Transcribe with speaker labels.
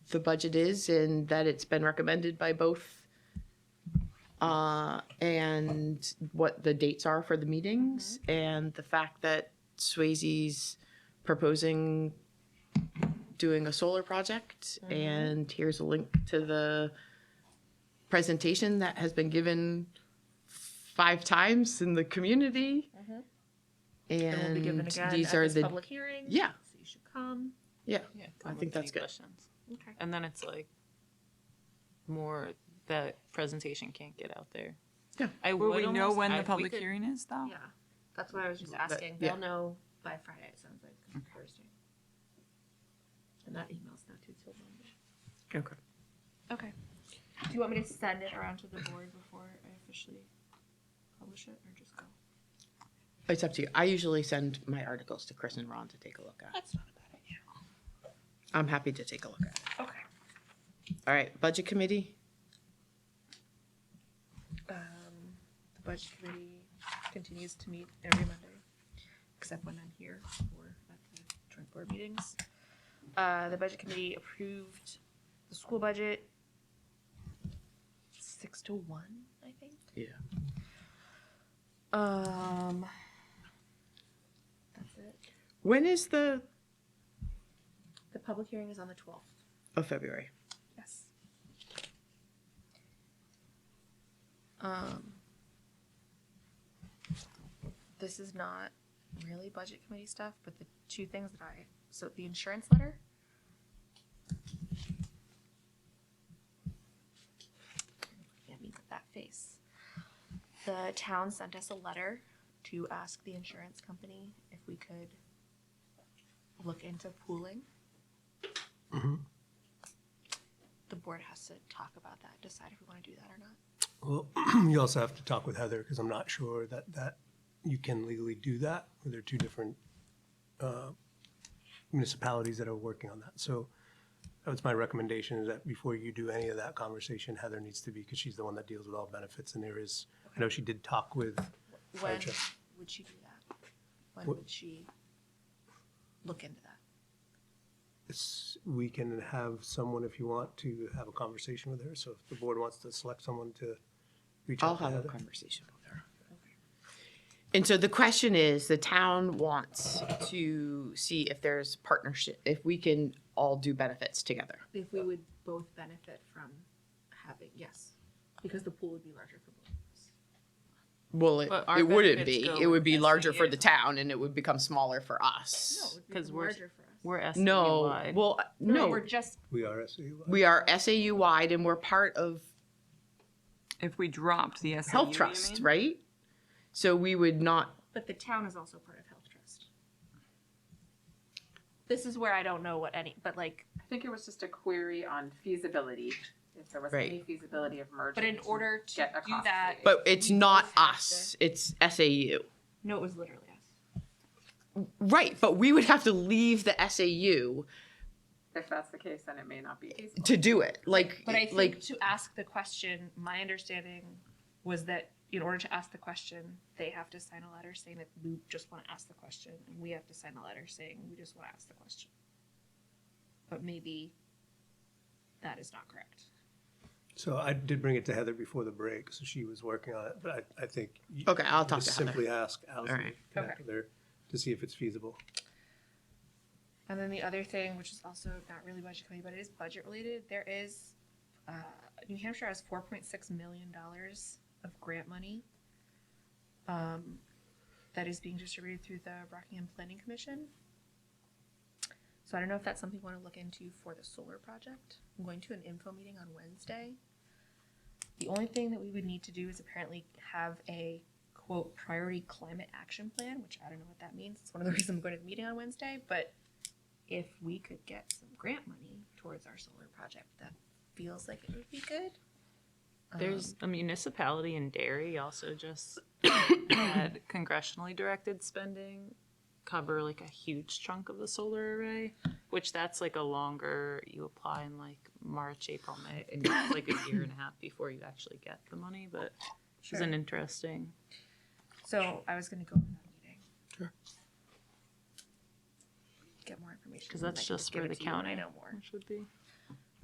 Speaker 1: the budget is and that it's been recommended by both uh, and what the dates are for the meetings and the fact that Swayze's proposing doing a solar project
Speaker 2: Mm-hmm.
Speaker 1: and here's a link to the presentation that has been given five times in the community
Speaker 2: And Mm-hmm. will be given
Speaker 1: and
Speaker 2: again
Speaker 1: these
Speaker 2: at
Speaker 1: are
Speaker 2: this
Speaker 1: the
Speaker 2: public hearing.
Speaker 1: yeah.
Speaker 2: So you should come.
Speaker 1: yeah
Speaker 3: Yeah,
Speaker 1: I
Speaker 3: come
Speaker 1: think
Speaker 3: with any
Speaker 1: that's good.
Speaker 3: questions.
Speaker 2: Okay.
Speaker 3: And then it's like more that presentation can't get out there.
Speaker 1: Yeah.
Speaker 3: I
Speaker 4: Will
Speaker 3: would
Speaker 4: we know
Speaker 3: almost-
Speaker 4: when
Speaker 3: I-
Speaker 4: the
Speaker 3: we
Speaker 4: public
Speaker 3: could-
Speaker 4: hearing is though?
Speaker 2: Yeah, that's what I was just
Speaker 1: But-
Speaker 2: asking.
Speaker 1: yeah.
Speaker 2: They'll know by Friday, it sounds like, 'cause it's Thursday. And that email's not due till Monday.
Speaker 1: okay
Speaker 2: Okay. Do you want me to send it around to the board before I officially publish it, or just go?
Speaker 1: it's up to you I usually send my articles to Chris and Ron to take a look at
Speaker 2: That's not a bad idea.
Speaker 1: I'm happy to take a look at it.
Speaker 2: Okay.
Speaker 1: all right budget committee
Speaker 2: Um, the budget committee continues to meet every Monday, except when I'm here or at the joint board meetings. Uh, the budget committee approved the school budget six to one, I think.
Speaker 1: Yeah.
Speaker 2: Um, that's it.
Speaker 1: when is the
Speaker 2: The public hearing is on the twelfth.
Speaker 1: of oh, February
Speaker 2: Yes. Um, this is not really budget committee stuff, but the two things that I, so the insurance letter. Look at me with that face. The town sent us a letter to ask the insurance company if we could look into pooling. The board has to talk about that, decide if we wanna do that or not.
Speaker 5: Well, you also have to talk with Heather, because I'm not sure that, that you can legally do that, where there are two different uh, municipalities that are working on that. So that's my recommendation, is that before you do any of that conversation, Heather needs to be, because she's the one that deals with all benefits, and there is, I know she did talk with,
Speaker 2: When
Speaker 5: Gotcha.
Speaker 2: would she do that? When
Speaker 5: What-
Speaker 2: would she look into that?
Speaker 5: it's- we can have someone, if you want, to have a conversation with her. So if the board wants to select someone to reach
Speaker 1: I'll
Speaker 5: out to
Speaker 1: have a
Speaker 5: Heather.
Speaker 1: conversation with her. And so the question is, the town wants to see if there's partnership, if we can all do benefits together.
Speaker 2: If we would both benefit from having, yes, because the pool would be larger for both of us.
Speaker 1: Well, it,
Speaker 3: But our
Speaker 1: it wouldn't
Speaker 3: benefits
Speaker 1: be.
Speaker 3: go
Speaker 1: It would be
Speaker 3: with
Speaker 1: larger for
Speaker 3: SAU.
Speaker 1: the town and it would become smaller for
Speaker 2: No,
Speaker 1: us.
Speaker 2: it would
Speaker 3: 'Cause
Speaker 2: be
Speaker 3: we're-
Speaker 2: larger for us.
Speaker 3: We're asking
Speaker 1: No,
Speaker 3: why.
Speaker 1: well,
Speaker 2: We're
Speaker 1: no,
Speaker 2: just,
Speaker 5: We are SAU.
Speaker 1: we are SAU wide and we're part of
Speaker 4: If we dropped the SAU,
Speaker 1: Health
Speaker 4: you
Speaker 1: Trust,
Speaker 4: mean?
Speaker 1: right? So we would not,
Speaker 2: but the town is also part of Health Trust. This is where I don't know what any, but like,
Speaker 6: I think it was just a query on feasibility, if there was
Speaker 1: Right.
Speaker 6: any feasibility of merging.
Speaker 2: but in order to
Speaker 6: get a
Speaker 2: do
Speaker 6: cost
Speaker 2: that.
Speaker 6: savings.
Speaker 1: but it's
Speaker 2: we
Speaker 1: not
Speaker 2: both have
Speaker 1: us, it's SAU.
Speaker 2: to- No, it was literally us.
Speaker 1: Right, but we would have to leave the SAU
Speaker 6: If that's the case, then it may not be feasible.
Speaker 1: to do it. Like,
Speaker 2: But I think
Speaker 1: like
Speaker 2: to ask the question, my understanding was that in order to ask the question, they have to sign a letter saying that we just want to ask the question, and we have to sign a letter saying we just want to ask the question. But maybe that is not correct.
Speaker 5: So I did bring it to Heather before the break, so she was working on it, but I, I think. you-
Speaker 1: Okay, I'll talk
Speaker 5: just
Speaker 1: to Heather.
Speaker 5: Simply ask Allison to
Speaker 1: right.
Speaker 5: connect with her to see if it's feasible.
Speaker 2: And then the other thing, which is also not really budget committee, but it is budget related, there is, uh, New Hampshire has four point six million dollars of grant money. Um, that is being distributed through the Rockingham Planning Commission. So I don't know if that's something you wanna look into for the solar project. I'm going to an info meeting on Wednesday. The only thing that we would need to do is apparently have a quote priority climate action plan, which I don't know what that means. It's one of the reasons I'm going to the meeting on Wednesday, but if we could get some grant money towards our solar project, that feels like it would be good. Um,
Speaker 3: There's
Speaker 4: Uh-huh.
Speaker 3: a municipality in Derry also just had congressionally directed spending cover like a huge chunk of the solar array, which that's like a longer, you apply in like March, April, May, and it's like a year and a half before you actually get the money, but it's
Speaker 2: Sure.
Speaker 3: an interesting.
Speaker 2: so I was gonna go to that meeting.
Speaker 5: Sure.
Speaker 2: Get more information.
Speaker 3: Because
Speaker 2: and
Speaker 3: that's
Speaker 2: I can
Speaker 3: just
Speaker 2: give
Speaker 3: for
Speaker 2: it
Speaker 3: the
Speaker 2: to you when I
Speaker 3: county.
Speaker 2: know more.
Speaker 3: Should be.